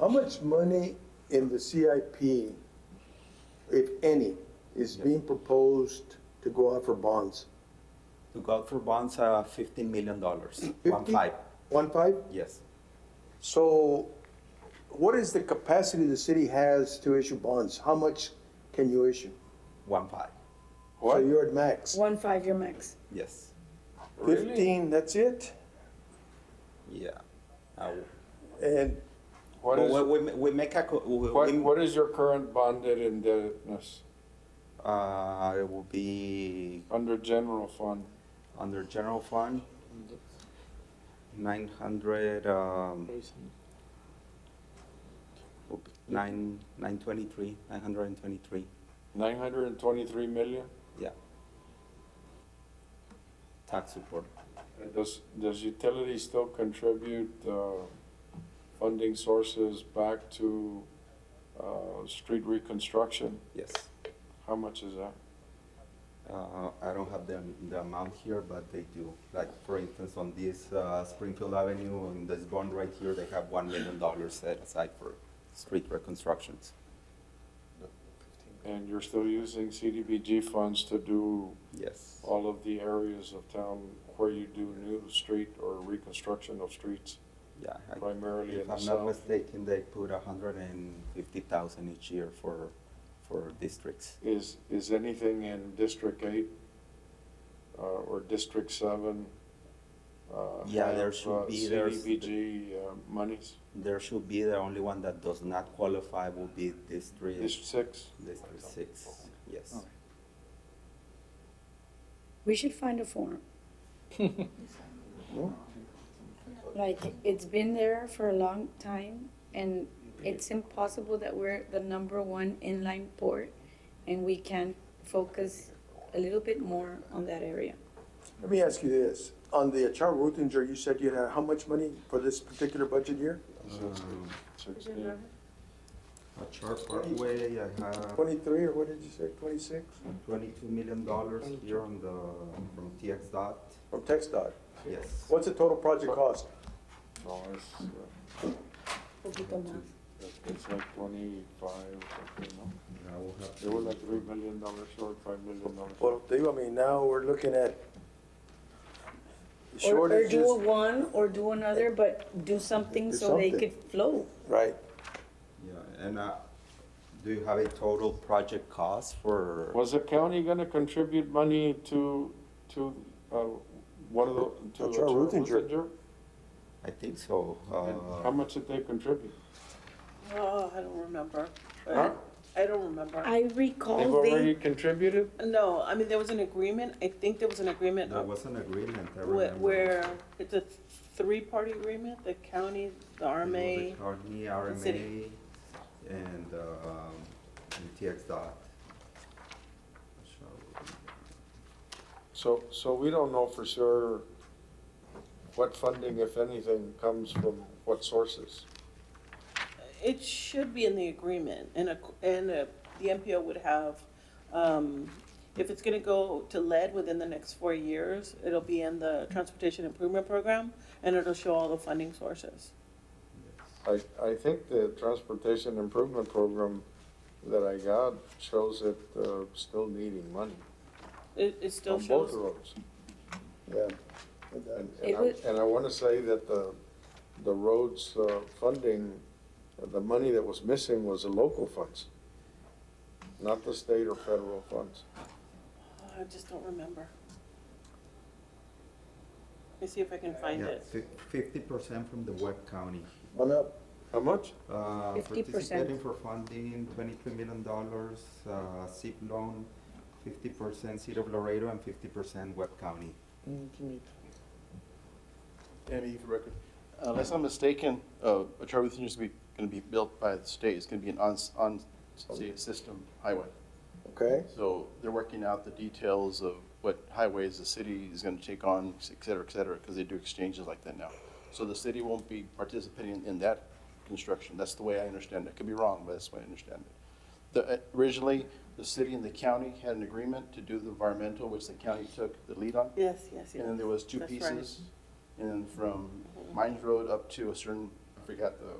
How much money in the CIP, if any, is being proposed to go out for bonds? To go out for bonds, uh, fifteen million dollars, one Fifty? five, One five? yes. So what is the capacity the city has to issue bonds? How much can you issue? One five, So you're at max. One five-year max. yes, Fifteen, that's it? yeah. Uh, And What but is, we, we, ma- we make a, co- we, what, we- what is your current bonded indebtedness uh, it will be under general fund? under general fund, nine hundred, um, will be nine, nine twenty-three, nine hundred and twenty-three, Nine hundred and twenty-three million? yeah. Tax support, Does, does utility still contribute, uh, funding sources back to, uh, street reconstruction? yes. How much is that? Uh, I don't have the, the amount here, but they do. Like, for instance, on this uh, Springfield Avenue, on this bond right here, they have $1 million set aside for street reconstructions. And you're still using CDBG funds to do Yes. all of the areas of town where you do new street or reconstruction of streets? Yeah. I- Primarily in If the I'm south. not mistaken, they put 150,000 each year for, for districts. Is, is anything in District Eight, uh, or District Seven? uh, Yeah, there have, should uh, be- there's- CDBG uh, monies, There should be, the only one that does not qualify will be District, District Six? District 6. Yes. We should find a form. Like, it's been there for a long time, and it's impossible that we're the number one inline port, and we can focus a little bit more on that area. let me ask you this. On the Charles Ruthinger, you said you had how much money for this particular budget year? Sixteen. Sixteen. At Sharp Parkway, I have Twenty-three, or what did you say, twenty-six? $22 million here on the, from TX dot. From Tech dot. Yes. What's the total project cost? No, it's, uh, Poquito más. it's like twenty-five, something, no? I will have They were like three million dollars short, five million dollars. Well, they, I mean, now we're looking at Or, or do a shortages, one, or do another, but do something Do so they something. could flow. right? Yeah, and uh, do you have a total project cost for? Was the county gonna contribute money to, to, uh, one of the, to That's uh, our Charles Ruthinger. Ruthinger? I think so. And Uh, How much did they contribute? Oh, I don't remember. Huh? I don't remember. I They've recall already they, contributed? No, I mean, there was an agreement, I think there was an agreement there of- was an agreement. I where, remember. where it's a three-party agreement, the county, the It was the RMA. County, and RMA, city. and, um, and TX dot. Shall So, so we don't know for sure what funding, if anything, comes from what sources. It should be in the agreement, and a, and a, the MPO would have, um, if it's gonna go to lead within the next four years, it'll be in the Transportation Improvement Program, and it'll show all the funding sources. I, I think the transportation improvement program that I got shows it, uh, still needing money It, it still on shows. both roads. Yeah. And, It and would- I, and I wanna say that the, the roads, uh, funding, the money that was missing was the local funds, not the state or federal funds. Oh, I just don't remember. Let me see if I can we- find Yeah, it. fifty percent from the Webb County. One up. How much? Uh, 50%. Participating for funding, twenty-three million dollars, uh, SIP loan, fifty percent City of Laredo and fifty percent Webb County. Andy, for the record, unless I'm mistaken, uh, a charter is going to be built by the state. It's going to be an on, on state system highway. Okay, So they're working out the details of what highways the city is going to take on, et cetera, et cetera, because they do exchanges like that now. So the city won't be participating in that construction. That's the way I understand it. Could be wrong, but that's the way I understand it. The, uh, originally, the city and the county had an agreement to do the environmental, which the county took the lead on. Yes, yes, yes. And then there was two That's right. pieces, and from Mines Road up to a certain, I forgot the